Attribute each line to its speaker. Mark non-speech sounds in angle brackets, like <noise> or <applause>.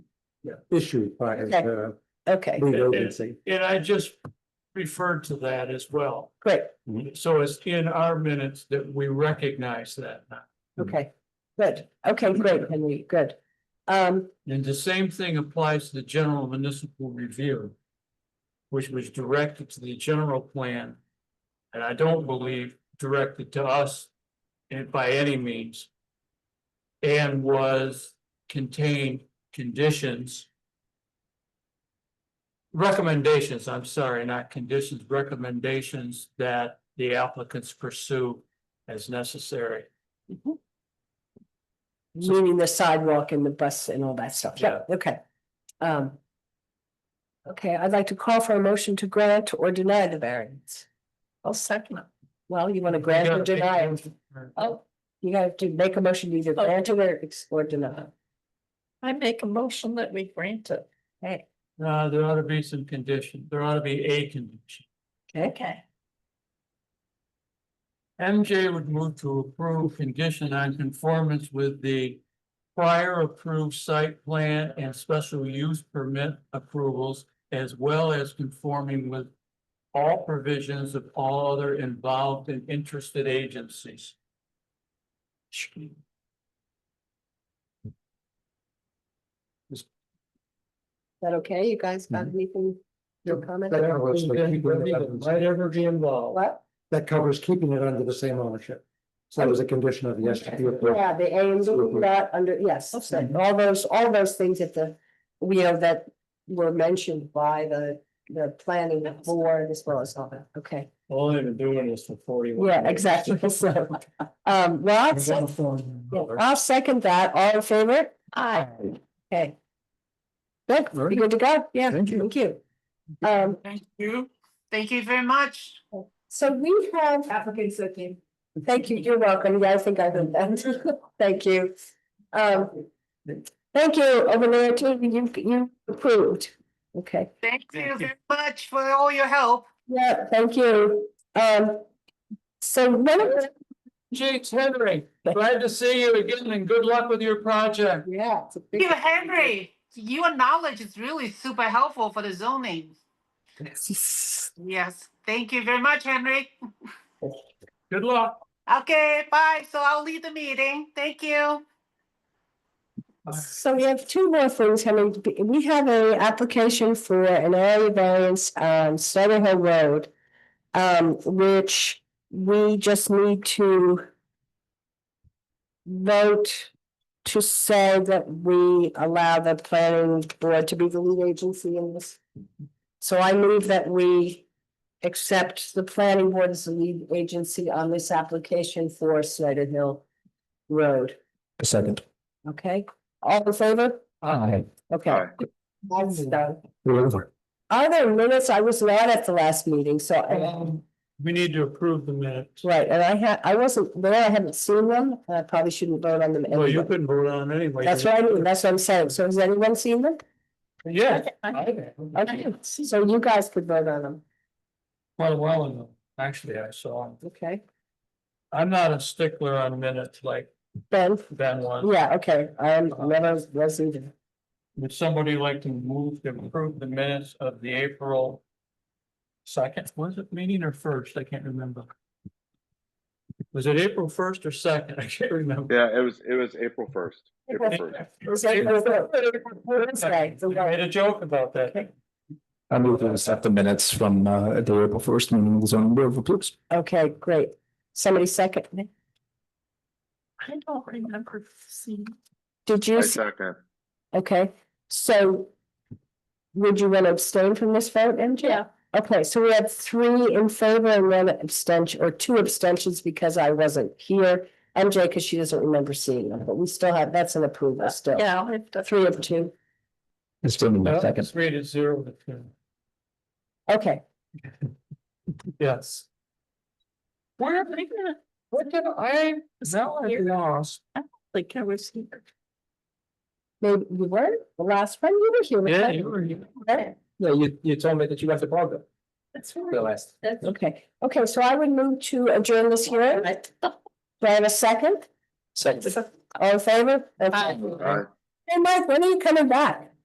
Speaker 1: issued by uh, the
Speaker 2: Okay,
Speaker 1: lead agency.
Speaker 3: And I just referred to that as well.
Speaker 2: great,
Speaker 3: So it's in our minutes that we recognize that now.
Speaker 2: okay, good, okay, great, Henry, good. Um,
Speaker 3: And the same thing applies to the general municipal review. Which was directed to the general plan. And I don't believe directed to us. And by any means. And was contained conditions. Recommendations, I'm sorry, not conditions, recommendations that the applicants pursue as necessary.
Speaker 2: meaning the sidewalk and the bus and all that stuff, yeah, okay. Um. Okay, I'd like to call for a motion to grant or deny the variance. I'll second it. Well, you want to grant or deny it? Oh, you have to make a motion to either grant it or ex- or deny.
Speaker 4: Oh. I make a motion that we grant it.
Speaker 2: Hey,
Speaker 3: Uh, there ought to be some condition, there ought to be a condition.
Speaker 4: Okay.
Speaker 3: MJ would move to approve condition on conformance with the prior approved site plan and special use permit approvals as well as conforming with all provisions of all other involved and interested agencies.
Speaker 2: is that okay? You guys got
Speaker 4: Mm-hmm.
Speaker 2: anything? Your comment?
Speaker 1: That covers the keeping it under the-
Speaker 3: ever be involved.
Speaker 2: What?
Speaker 1: that covers keeping it under the same ownership. So that was a condition of the S T P approval.
Speaker 2: Yeah, the A and B,
Speaker 1: Absolutely.
Speaker 2: that under, yes, so all those, all those things that the, we know that were mentioned by the, the planning board as well as all that, okay.
Speaker 3: Only been doing this for forty-one.
Speaker 2: Yeah, exactly, <laughs> so, um, well, I'll sec- yeah, I'll second that, all in favor? Aye. Okay. Good,
Speaker 1: All
Speaker 2: you
Speaker 1: right.
Speaker 2: good to go? Yeah,
Speaker 1: Thank you.
Speaker 2: thank you. Um,
Speaker 4: Thank you. Thank you very much.
Speaker 2: so we have. Applicants looking. Thank you, you're welcome, yeah, I think I heard that, <laughs> thank you. Um, thank you, over there, too, you, you approved, okay.
Speaker 4: Thank you
Speaker 3: you.
Speaker 4: very much for all your help.
Speaker 2: Yeah, thank you, um, so one of the,
Speaker 3: Jake's Henry, glad to see you again and good luck with your project.
Speaker 2: yeah. it's a big-
Speaker 4: You, Henry, your knowledge is really super helpful for the zoning. Yes, thank you very much, Henry.
Speaker 3: Good luck.
Speaker 4: Okay, bye. So I'll leave the meeting. Thank you.
Speaker 2: So we have two more things, I mean, we have a application for an area variance on Snyder Hill Road. Um, which we just need to. Vote to say that we allow the planning board to be the lead agency in this. So I move that we accept the planning board as the lead agency on this application for Snyder Hill Road,
Speaker 1: A second.
Speaker 2: okay? All in favor?
Speaker 1: Aye.
Speaker 2: Okay. That's done.
Speaker 1: Whatever.
Speaker 2: Are there minutes? I was not at the last meeting, so, I-
Speaker 3: Um, We need to approve the minutes.
Speaker 2: right, and I had, I wasn't there, I haven't seen them, and I probably shouldn't vote on them.
Speaker 3: Well, you
Speaker 2: anyway.
Speaker 3: couldn't vote on it anyway.
Speaker 2: That's what I mean, that's what I'm saying, so has anyone seen them?
Speaker 3: Yeah.
Speaker 2: Okay, so you guys could vote on them,
Speaker 3: Quite a while ago, actually, I saw him.
Speaker 2: okay?
Speaker 3: I'm not a stickler on minutes like
Speaker 2: Ben,
Speaker 3: Ben was.
Speaker 2: yeah, okay, I am, never was either.
Speaker 3: Would somebody like to move to approve the minutes of the April second, was it meeting or first? I can't remember. Was it April first or second? <laughs> I can't remember.
Speaker 5: Yeah, it was, it was April first. April
Speaker 3: <laughs>
Speaker 5: first.
Speaker 2: Second. That's right.
Speaker 3: I Made a joke about that.
Speaker 6: I move to accept the minutes from uh the April first meeting of the zoning board of appeals.
Speaker 2: Okay, great, somebody second, me?
Speaker 4: I don't remember seeing.
Speaker 2: did
Speaker 5: I
Speaker 2: you, se-
Speaker 5: second.
Speaker 2: okay, so. Would you want to abstain from this vote, MJ?
Speaker 4: Yeah.
Speaker 2: Okay, so we had three in favor and one abstention, or two abstentions because I wasn't here. MJ, because she doesn't remember seeing them, but we still have, that's an approval still.
Speaker 4: Uh, Yeah.
Speaker 2: Three of two.
Speaker 6: It's still in my second.
Speaker 3: Let's read it zero to two.
Speaker 2: Okay,
Speaker 3: Yes. Where am I gonna, what did I, now I lost.
Speaker 4: Like I was here.
Speaker 2: maybe you weren't the last one, you were here.
Speaker 3: Yeah,
Speaker 2: right?
Speaker 3: you were, you-
Speaker 2: Right.
Speaker 6: No, you you told me that you left the program.
Speaker 4: That's
Speaker 6: last.
Speaker 2: Okay, okay, so I would move to adjourn this hearing. Do I have a second?
Speaker 6: Second.
Speaker 2: All in favor? Okay.
Speaker 4: Aye.
Speaker 5: All right.
Speaker 2: Hey, Mike, when are you coming back?